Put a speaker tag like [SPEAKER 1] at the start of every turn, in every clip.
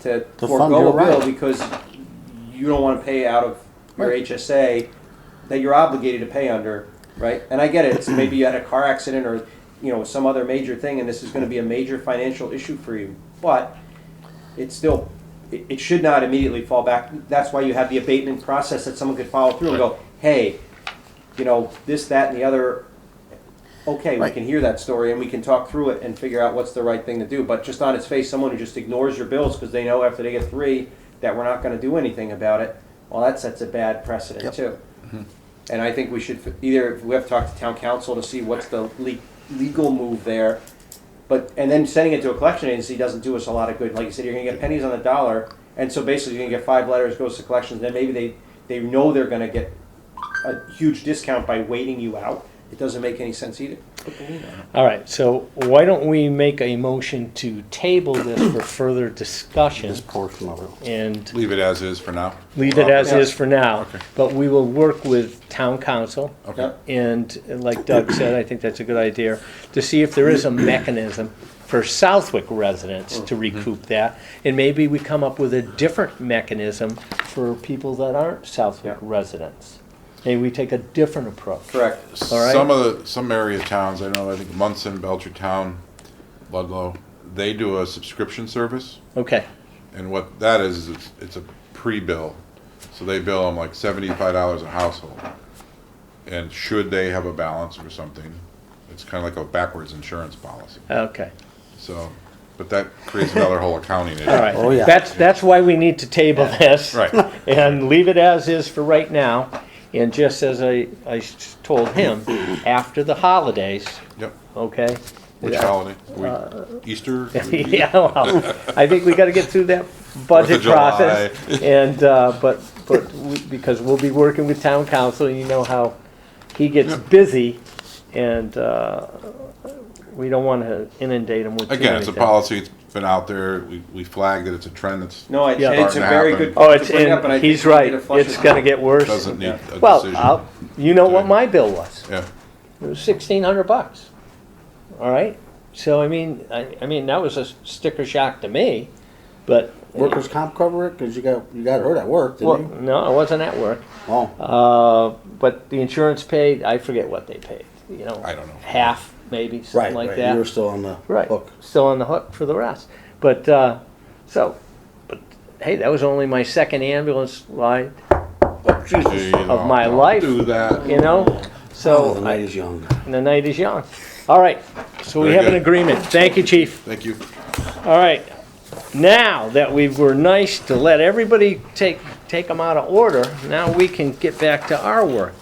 [SPEAKER 1] to
[SPEAKER 2] To fund
[SPEAKER 1] forego
[SPEAKER 2] your
[SPEAKER 1] a bill
[SPEAKER 2] right.
[SPEAKER 1] because you don't want to pay out of your HSA that you're obligated to pay under, right? And I get it, it's maybe you had a car accident or, you know, some other major thing, and this is gonna be a major financial issue for you, but it's still, it, it should not immediately fall back. That's why you have the abatement process that someone could follow through and go, hey, you know, this, that, and the other. Okay, we
[SPEAKER 2] Right.
[SPEAKER 1] can hear that story and we can talk through it and figure out what's the right thing to do. But just on its face, someone who just ignores your bills because they know after they get three that we're not gonna do anything about it, well, that sets a bad precedent
[SPEAKER 2] Yep. Mm-hmm.
[SPEAKER 1] too. And I think we should f- either, we have to talk to town council to see what's the le- legal move there. But, and then sending it to a collection agency doesn't do us a lot of good. Like you said, you're gonna get pennies on the dollar. And so basically you're gonna get five letters, goes to collections, then maybe they, they know they're gonna get a huge discount by waiting you out. It doesn't make any sense either.
[SPEAKER 3] All right, so why don't we make a motion to table this for further discussion
[SPEAKER 2] this portion of it.
[SPEAKER 3] and
[SPEAKER 4] Leave it as is for now.
[SPEAKER 3] leave it as is for now?
[SPEAKER 4] Okay.
[SPEAKER 3] But we will work with town council.
[SPEAKER 4] Okay.
[SPEAKER 3] And like Doug said, I think that's a good idea, to see if there is a mechanism for Southwick residents to recoup that. And maybe we come up with a different mechanism for people that aren't Southwick
[SPEAKER 1] Yeah.
[SPEAKER 3] residents. Maybe we take a different approach.
[SPEAKER 1] Correct.
[SPEAKER 3] All right.
[SPEAKER 4] Some of the, some area towns, I know, I think Munson, Belchertown, Ludlow, they do a subscription service.
[SPEAKER 3] Okay,
[SPEAKER 4] And what that is, is it's- it's a pre-bill. So they bill them like seventy-five dollars a household. And should they have a balance or something, it's kind of like a backwards insurance policy.
[SPEAKER 3] okay.
[SPEAKER 4] So, but that creates another whole accounting issue.
[SPEAKER 3] All right.
[SPEAKER 2] Oh, yeah.
[SPEAKER 3] That's, that's why we need to table this.
[SPEAKER 4] Right.
[SPEAKER 3] And leave it as is for right now. And just as I, I s- told him, after the holidays,
[SPEAKER 4] Yep.
[SPEAKER 3] okay?
[SPEAKER 4] Which holiday?
[SPEAKER 3] Uh,
[SPEAKER 4] Are we- Easter?
[SPEAKER 3] Yeah, well, I think we gotta get through that budget
[SPEAKER 4] Fourth of July.
[SPEAKER 3] process. And, uh, but, but, we- because we'll be working with town council, and you know how he gets busy. And, uh, we don't wanna inundate him with too
[SPEAKER 4] Again, it's a
[SPEAKER 3] many things.
[SPEAKER 4] policy, it's been out there, we, we flagged it, it's a trend that's,
[SPEAKER 1] No, I,
[SPEAKER 3] Yeah.
[SPEAKER 1] and it's a very good.
[SPEAKER 3] Oh, it's,
[SPEAKER 1] to bring up, and I
[SPEAKER 3] in
[SPEAKER 1] think
[SPEAKER 3] he's
[SPEAKER 1] we
[SPEAKER 3] right.
[SPEAKER 1] need to flush
[SPEAKER 3] It's
[SPEAKER 1] it
[SPEAKER 3] gonna
[SPEAKER 1] out.
[SPEAKER 3] get worse.
[SPEAKER 4] doesn't need a
[SPEAKER 3] Well, I'll-
[SPEAKER 4] decision.
[SPEAKER 3] you know what my bill was.
[SPEAKER 4] Yeah,
[SPEAKER 3] It was sixteen hundred bucks. All right. So I mean, I, I mean that was a sticker shock to me, but
[SPEAKER 2] Workers' comp cover it, cause you got, you got hurt at work,
[SPEAKER 3] Well,
[SPEAKER 2] didn't you?
[SPEAKER 3] no, I wasn't at work.
[SPEAKER 2] Oh,
[SPEAKER 3] Uh, but the insurance paid. I forget what they paid. You know,
[SPEAKER 4] I don't know.
[SPEAKER 3] Half maybe something
[SPEAKER 2] right,
[SPEAKER 3] like
[SPEAKER 2] right,
[SPEAKER 3] that.
[SPEAKER 2] you were still on the
[SPEAKER 3] right.
[SPEAKER 2] hook.
[SPEAKER 3] Still on the hook for the rest. But uh, so, but hey, that was only my second ambulance ride.
[SPEAKER 4] You
[SPEAKER 3] of
[SPEAKER 4] know,
[SPEAKER 3] my
[SPEAKER 4] don't
[SPEAKER 3] life.
[SPEAKER 4] Do that.
[SPEAKER 3] You know.
[SPEAKER 2] Oh,
[SPEAKER 3] So
[SPEAKER 2] the
[SPEAKER 3] I-
[SPEAKER 2] night is young.
[SPEAKER 3] And the night is young. All right, so we
[SPEAKER 4] Very
[SPEAKER 3] have an
[SPEAKER 4] good.
[SPEAKER 3] agreement. Thank you, chief.
[SPEAKER 4] Thank you.
[SPEAKER 3] All right, now that we were nice to let everybody take, take them out of order, now we can get back to our work.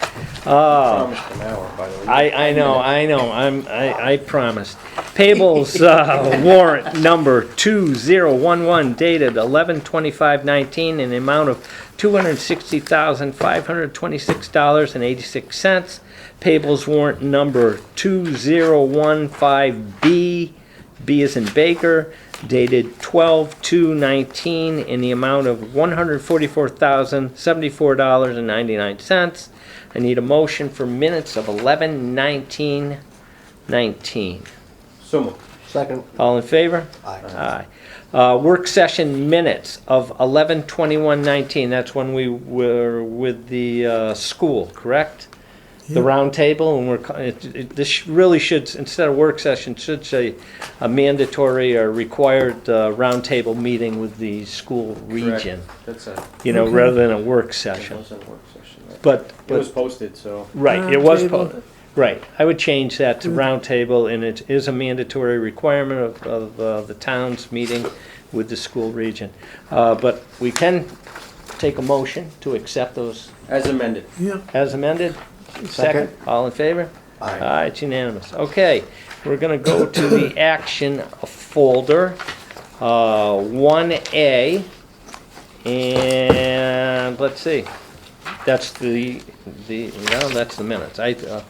[SPEAKER 3] Uh,
[SPEAKER 1] Promised an hour, by the way.
[SPEAKER 3] I, I know, I know, I'm, I, I promised. Payables, uh, warrant number two zero one one dated eleven twenty-five nineteen in the amount of two hundred sixty thousand, five hundred twenty-six dollars and eighty-six cents. Payables warrant number 2015B, B is in Baker, dated 12/2/19 in the amount of $144,074.99. I need a motion for minutes of 11/19/19.
[SPEAKER 1] So moved.
[SPEAKER 2] Second,
[SPEAKER 3] All in favor?
[SPEAKER 2] Aye.
[SPEAKER 3] Aye. Uh, work session minutes of 11/21/19, that's when we were with the, uh, school, correct? The round table, and we're, co- it, it, this really should, instead of work session, should say a mandatory or required, uh, round table meeting with the school
[SPEAKER 1] Correct.
[SPEAKER 3] region.
[SPEAKER 1] That's a,
[SPEAKER 3] You know, rather than a work
[SPEAKER 1] that
[SPEAKER 3] session,
[SPEAKER 1] was a work session. right?
[SPEAKER 3] but,
[SPEAKER 1] It was
[SPEAKER 3] but,
[SPEAKER 1] posted, so.
[SPEAKER 3] right, it was, po- right, I would change that to round table, and it is a mandatory requirement of, of, uh, the town's meeting with the school region. Uh, but we can take a motion to accept those
[SPEAKER 1] As amended.
[SPEAKER 3] as amended? Second, all in favor?
[SPEAKER 2] Aye.
[SPEAKER 3] Aye, it's unanimous. Okay, we're gonna go to the action folder, uh, one A. And, let's see, that's the, the, no, that's the minutes, I, uh,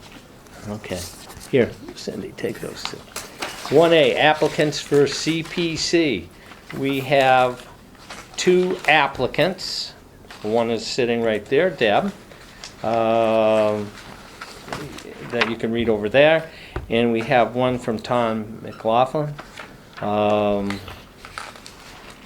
[SPEAKER 3] okay. Here, Cindy, take those two. One A, applicants for CPC. We have two applicants. One is sitting right there, Deb um, that you can read over there. And we have one from Tom McLaughlin. Um,